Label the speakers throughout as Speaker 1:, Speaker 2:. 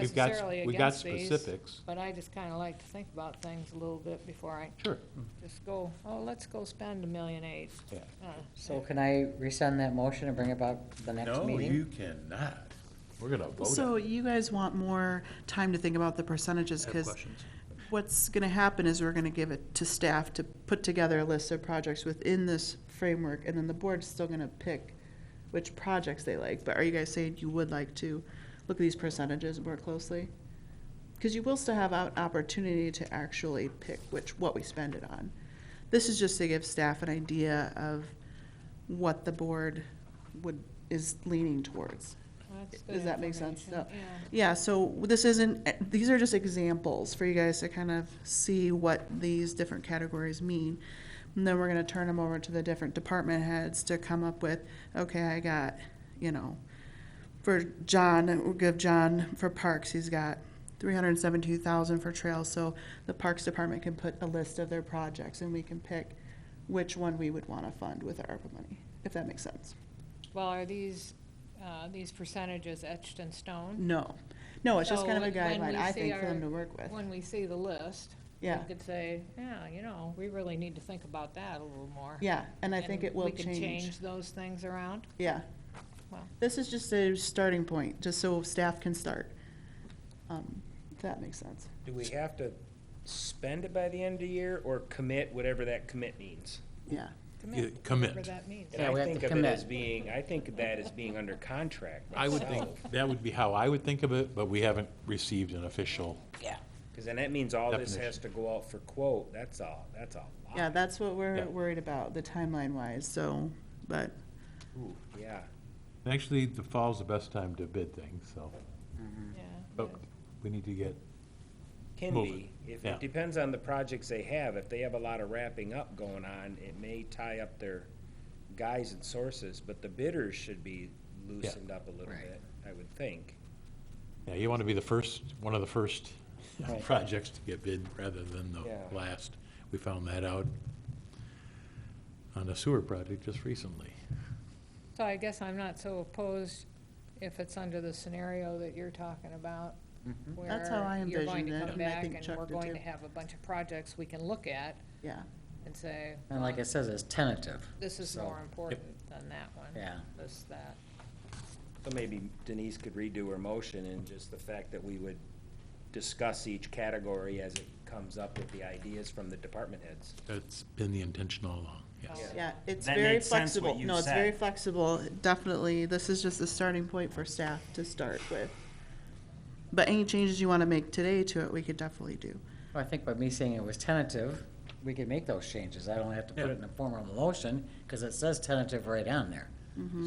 Speaker 1: We've got,
Speaker 2: necessarily
Speaker 1: we've got
Speaker 2: against these,
Speaker 1: specifics.
Speaker 2: But I just kind of like to think about things a little bit before I
Speaker 1: Sure,
Speaker 2: just go, oh, let's go spend a million eight.
Speaker 1: yeah.
Speaker 2: Uh,
Speaker 3: So can I resend that motion and bring it back the next
Speaker 4: No,
Speaker 3: meeting?
Speaker 4: you cannot.
Speaker 1: We're gonna vote
Speaker 5: So
Speaker 1: on it.
Speaker 5: you guys want more time to think about the percentages, because what's gonna happen is we're gonna give it to staff to put together a list of projects within this framework, and then the board's still gonna pick which projects they like, but are you guys saying you would like to look at these percentages more closely? Because you will still have an opportunity to actually pick which, what we spend it on. This is just to give staff an idea of what the board would, is leaning towards.
Speaker 2: that's good
Speaker 5: Does that make sense? No.
Speaker 2: information, yeah.
Speaker 5: Yeah, so this isn't, eh, these are just examples for you guys to kind of see what these different categories mean. And then we're gonna turn them over to the different department heads to come up with, okay, I got, you know, for John, we'll give John for parks, he's got three hundred and seventy-two thousand for trails, so the Parks Department can put a list of their projects and we can pick which one we would wanna fund with our ARPA money, if that makes sense.
Speaker 2: Well, are these, uh, these percentages etched in stone?
Speaker 5: No, no, it's just
Speaker 2: So
Speaker 5: kind of a
Speaker 2: when we
Speaker 5: guideline, I
Speaker 2: see
Speaker 5: think, for
Speaker 2: our-
Speaker 5: them to work with.
Speaker 2: When we see the list, we
Speaker 5: Yeah.
Speaker 2: could say, yeah, you know, we really need to think about that a little more.
Speaker 5: Yeah, and I think
Speaker 2: And
Speaker 5: it will
Speaker 2: We can
Speaker 5: change.
Speaker 2: change those things around.
Speaker 5: Yeah.
Speaker 2: Wow.
Speaker 5: This is just a starting point, just so staff can start. Um, If that makes sense.
Speaker 6: Do we have to spend it by the end of the year or commit, whatever that commit means?
Speaker 5: Yeah.
Speaker 1: You-
Speaker 2: Whatever
Speaker 1: Commit.
Speaker 2: that means.
Speaker 6: And
Speaker 3: Yeah, we
Speaker 6: I
Speaker 3: have to
Speaker 6: think of it as
Speaker 3: commit.
Speaker 6: being, I think of that as being under contract
Speaker 1: I would think, that would be how I would think of it, but we haven't received an official.
Speaker 6: Because then that means all this
Speaker 1: Definition.
Speaker 6: has to go out for quote, that's all, that's all.
Speaker 5: Yeah, that's what we're
Speaker 1: Yeah.
Speaker 5: worried about, the timeline wise, so, but,
Speaker 6: Ooh, yeah.
Speaker 1: Actually, the fall's the best time to bid things, so,
Speaker 2: Yeah.
Speaker 1: but we need to get,
Speaker 6: Can
Speaker 1: Move
Speaker 6: be. If,
Speaker 1: yeah.
Speaker 6: it depends on the projects they have. If they have a lot of wrapping up going on, it may tie up their guys and sources, but the bidders should be loosened up a little
Speaker 3: Right.
Speaker 6: bit, I would think.
Speaker 1: yeah, you want to be the first, one of the first
Speaker 6: Right.
Speaker 1: projects to get bid rather than
Speaker 6: Yeah.
Speaker 1: the last. We found that out on a sewer project just recently.
Speaker 2: So I guess I'm not so opposed if it's under the scenario that you're talking about.
Speaker 3: Mm-hmm.
Speaker 5: That's how I
Speaker 2: where You're going to
Speaker 5: envisioned it,
Speaker 2: come
Speaker 5: and I
Speaker 2: back
Speaker 5: think
Speaker 2: and
Speaker 5: Chuck
Speaker 2: we're
Speaker 5: did
Speaker 2: going
Speaker 5: too.
Speaker 2: to have a bunch of projects we can look at
Speaker 5: yeah.
Speaker 2: and say,
Speaker 3: And like it says, it's tentative.
Speaker 2: this is
Speaker 3: So-
Speaker 2: more important than that one.
Speaker 3: Yeah.
Speaker 2: This, that.
Speaker 6: So maybe Denise could redo her motion and just the fact that we would discuss each category as it comes up with the ideas from the department heads.
Speaker 1: That's been the intention all along, yes.
Speaker 2: Yeah.
Speaker 5: Yeah, it's
Speaker 6: That
Speaker 5: very
Speaker 6: made sense what
Speaker 5: flexible.
Speaker 6: you
Speaker 5: No, it's very
Speaker 6: said.
Speaker 5: flexible, definitely. This is just a starting point for staff to start with. But any changes you want to make today to it, we could definitely do.
Speaker 3: Well, I think by me saying it was tentative, we could make those changes. I don't have to put it in the form of a motion, because it says tentative right on there.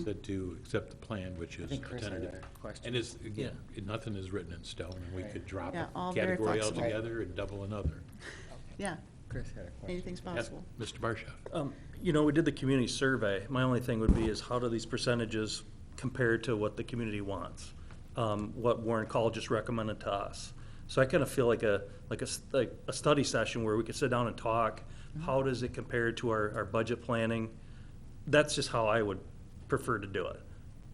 Speaker 1: Said to accept the plan, which is
Speaker 3: think Chris had
Speaker 1: tentative.
Speaker 3: a question.
Speaker 1: And it's, again, nothing is written in stone, and we could drop
Speaker 5: Yeah, all
Speaker 1: a
Speaker 5: very
Speaker 1: category
Speaker 5: flexible.
Speaker 1: altogether and double another.
Speaker 5: Yeah,
Speaker 3: Chris had a question.
Speaker 5: anything's
Speaker 1: Yes,
Speaker 5: possible.
Speaker 1: Mr. Barsha?
Speaker 7: Um, You know, we did the community survey. My only thing would be is how do these percentages compare to what the community wants? Um, What Warren Call just recommended to us. So I kind of feel like a, like a, s- like a study session where we could sit down and talk. How does it compare to our, our budget planning? That's just how I would prefer to do it.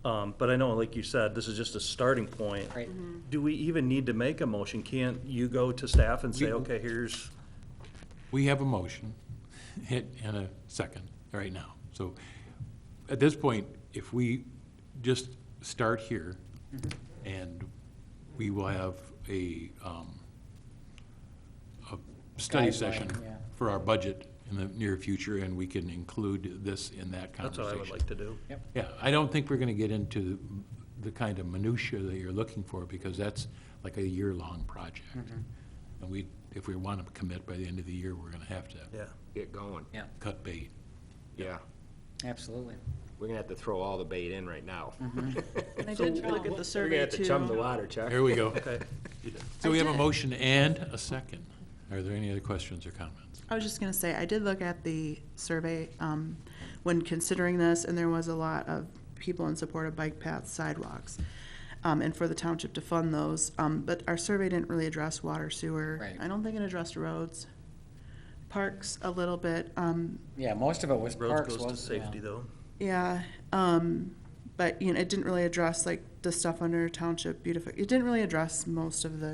Speaker 7: Um, But I know, like you said, this is just a starting point.
Speaker 3: Right.
Speaker 7: Do we even need to make a motion? Can't you go to staff and say,
Speaker 1: We-
Speaker 7: okay, here's?
Speaker 1: We have a motion hit and a second right now. So at this point, if we just start here,
Speaker 3: Mm-hmm.
Speaker 1: and we will have a, um, a study
Speaker 3: Guideline,
Speaker 1: session
Speaker 3: yeah.
Speaker 1: for our budget in the near future, and we can include this in that
Speaker 7: That's
Speaker 1: conversation.
Speaker 7: what I would like to do.
Speaker 1: Yeah, I don't think we're gonna get into the kind of minutia that you're looking for, because that's like a year-long project. And we, if we wanna commit by the end of the year, we're gonna have to
Speaker 7: Mm-hmm. Yeah.
Speaker 8: get going.
Speaker 3: Yeah,
Speaker 1: cut bait.
Speaker 8: Yeah,
Speaker 3: absolutely.
Speaker 8: we're gonna have to throw all the bait in right now.
Speaker 5: And I did look at the
Speaker 8: We're gonna
Speaker 5: survey
Speaker 8: have
Speaker 5: too.
Speaker 8: to chum the water, Chuck.
Speaker 1: Here we go.
Speaker 7: Okay.
Speaker 1: So we have
Speaker 5: I
Speaker 1: a
Speaker 5: did-
Speaker 1: motion and a second. Are there any other questions or comments?
Speaker 5: I was just gonna say, I did look at the survey, um, when considering this, and there was a lot of people in support of bike paths, sidewalks, um, and for the township to fund those, um, but our survey didn't really address water, sewer.
Speaker 3: Right.
Speaker 5: I don't think it addressed roads, parks a little bit, um,
Speaker 3: Yeah, most of it was
Speaker 7: Roads
Speaker 3: parks,
Speaker 7: goes to
Speaker 3: wasn't, yeah.
Speaker 7: safety though.
Speaker 5: yeah, um, but, you know, it didn't really address like the stuff under township beautification. It didn't really address most of the